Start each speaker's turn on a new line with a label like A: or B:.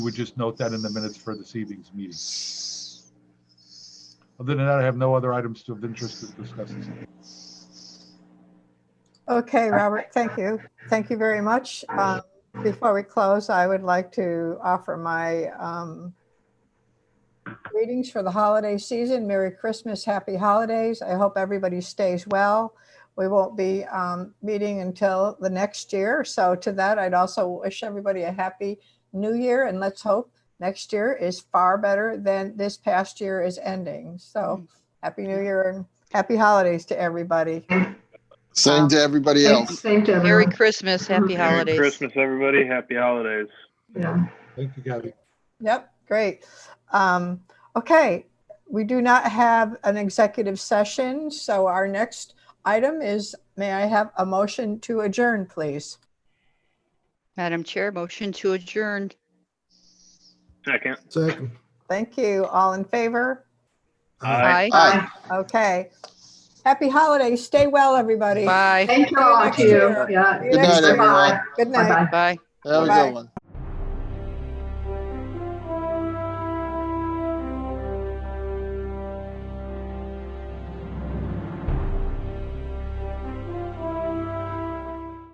A: would just note that in the minutes for this evening's meeting. Other than that, I have no other items of interest to discuss. this evening.
B: Okay, Robert, thank you. Thank you very much. Um, Before we close, I would like to offer my um, greetings for the holiday season. Merry Christmas, happy holidays. I hope everybody stays well. We won't be um, meeting until the next year. So to that, I'd also wish everybody a happy new year and let's hope next year is far better than this past year is ending. So happy new year and happy holidays to everybody.
C: Same to everybody else.
D: Same to
E: Merry
D: everyone.
E: Christmas, happy
D: Merry
F: Merry
E: holidays.
F: Christmas, everybody. Happy holidays.
D: Yeah.
A: Thank you, Gabby.
B: Yep, great. Um, okay, we do not have an executive session, so our next item is, may I have a motion to adjourn, please?
E: Madam Chair, motion to adjourn.
F: Second.
C: Second.
B: Thank you. All in favor?
E: Aye.
C: Aye.
B: Okay. Happy holidays. Stay well, everybody.
E: Bye.
D: Thank you all to you. Yeah.
B: Good
C: night, everyone.
B: Good night.
D: Bye-bye.
E: Bye.
C: Have a
B: Bye.
C: good one.